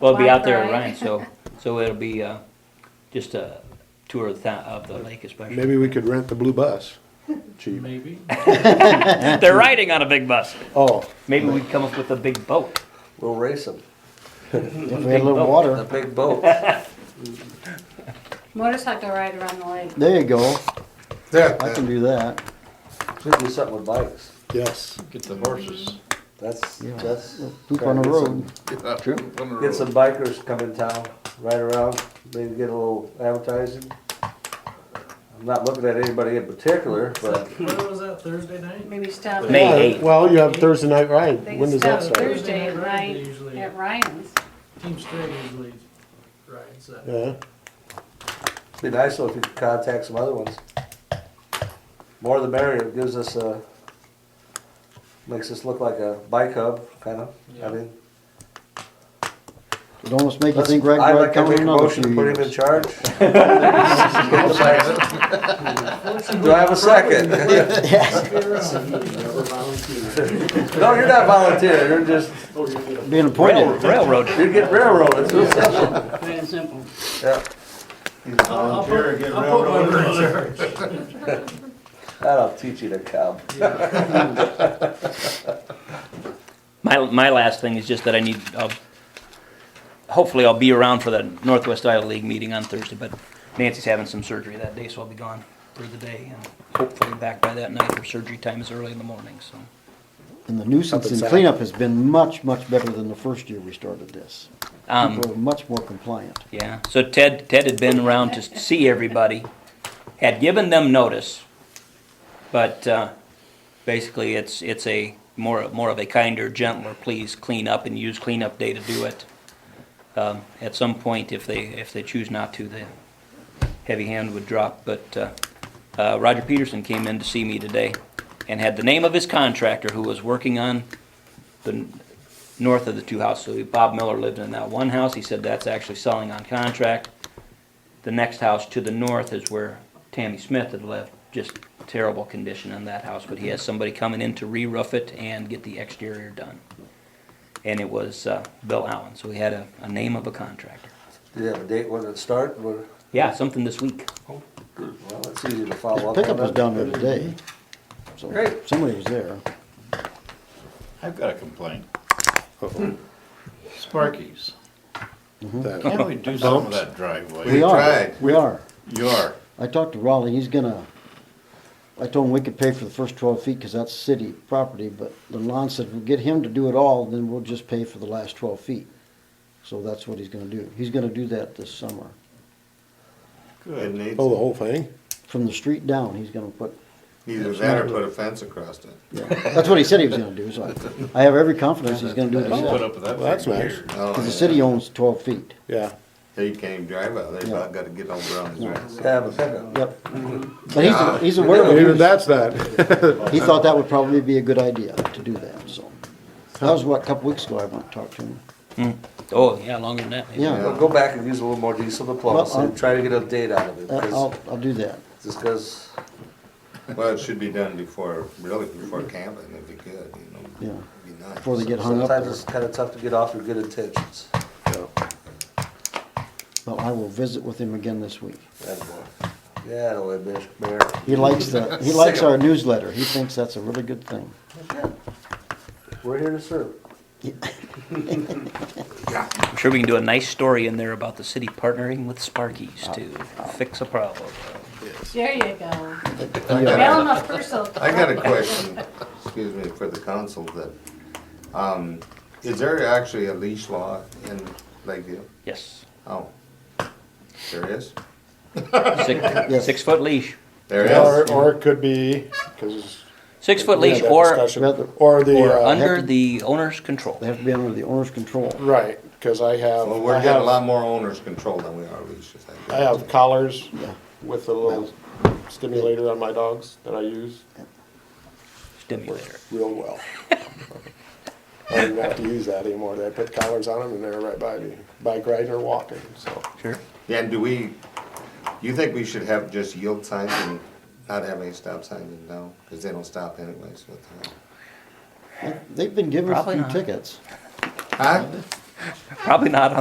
Well, it'll be out there Wi-Fi. running, so, so it'll be, uh, just a tour of the, of the lake especially. Maybe we could rent the blue bus, cheap. Maybe. They're riding on a big bus. Oh, Maybe we come up with a big boat. We'll race them, If we had a little the water, big boat. Motorcycle ride around the lake. there you go, I can That, do that. We do something with bikes. yes. Get the horses. That's, Yeah. that's. Poop on the Get some- road. yeah. True. On the Get road. some bikers come in town, ride around, maybe get a little advertising. I'm not looking at anybody in particular, but What was that, Thursday night? Maybe stop. May Yeah, eighth. Well, you have Thursday night ride. They When can does that stop start? Thursday at Right, night usually. at Ryan's. Team State usually rides that. Yeah, it'd be nice if you could contact some other ones. More the merrier, It gives us a, makes us look like a bike hub, kind of, I Yeah. mean. It'd almost make you let's- think Red I'd Rock like to coming make a another motion few to put him in years. charge. Do I have a second? No, you're not volunteering, you're just, Being Rail- appointed, Railroad. you're getting railroaded. Yeah, I'll, I'll put, I'll put one over there. that'll teach you to come. My, my last thing is just that I need, uh, hopefully I'll be around for the Northwest Iowa League meeting on Thursday, but Nancy's having some surgery that day, so I'll be gone for the day and hopefully back by that night. Her surgery time is early in the morning, so. and the nuisance and Upside. cleanup has been much, much better than the first year we started this. Um, People are much more compliant. Yeah, so Ted, Ted had been around to see everybody, had given them notice, but, uh, basically it's, it's a more, more of a kinder, gentler, please clean up and use cleanup day to do it. Um, at some point, if they, if they choose not to, the heavy hand would drop, but, uh, uh, Roger Peterson came in to see me today and had the name of his contractor who was working on the, north of the two houses. Bob Miller lived in that one house. He said that's actually selling on contract. The next house to the north is where Tammy Smith had lived. Just terrible condition on that house, but he has somebody coming in to re-roof it and get the exterior done. And it was uh, Bill Allen, so he had a, a name of a contractor. Do you have a date when it start? Well, Yeah, something this week. it's easy to follow His up. pickup on was that. down there today, so Great. somebody was there. I've got a complaint. Sparkies. that- Can't we do some of that driveway? We are, tried. we are. You are. I talked to Raleigh, he's gonna, I told him we could pay for the first twelve feet, cause that's city property, but then Lon said, we'll get him to do it all, then we'll just pay for the last twelve feet. So that's what he's gonna do, he's gonna do that this summer, It Oh, needs, the whole thing? from the street down, he's gonna put, either that or put a fence across it. yeah, that's what he said he was gonna do, so I, I have every confidence he's gonna do it Just put himself. up with that Well, that's for nice. years. Cause the city owns twelve feet, Yeah. They Oh, can't drive out, they Yeah. about gotta get over on the grass. Yeah, the pickup. yep. But he's, he's aware of it. Even that's that. He thought that would probably be a good idea to do that, so. That was what, a couple weeks ago I went and talked to him. Oh, yeah, longer than that. maybe. Yeah. Well, Go back and use a little more diesel diplomacy, Well, and I'll- try to get a date out of it, Uh, 'cause- I'll, I'll do that. just because, Well, it should be done before, really before camping if you could, you know. Yeah. Be nice. Before they get hung up sometimes there. it's kind of tough to get off your good intentions. So, Well, I will visit with him again this week. that boy. Yeah, the way, Miss Mayor. He likes the, he likes our newsletter. He thinks that's a really good thing. We're here to serve. I'm sure we can do a nice story in there about the city partnering with Sparkies to fix a problem. There you go. He, uh, Mail them a parcel. I got a question, excuse me, for the council that, um, is there actually a leash law in Lakeview? Yes. Oh, there is? Six, six-foot leash. There is? Or, or it could be, because. Six-foot leash or Or the. Or uh, under the owner's control. They have to be under the owner's control. Right, because I have, Well, I we're getting a lot have, more owners control than we are leashes. think. I have collars with a little stimulator on my dogs that I use Stimulator. real well. I don't have to use that anymore. They put collars on them and they're right by me, bike riding or walking, so. Sure. Yeah, and do we, you think we should have just yield signs and not have any stop signs and no? Because they don't stop anyways. uh, what the They've been given a Probably few not. tickets. hell? Huh? Probably not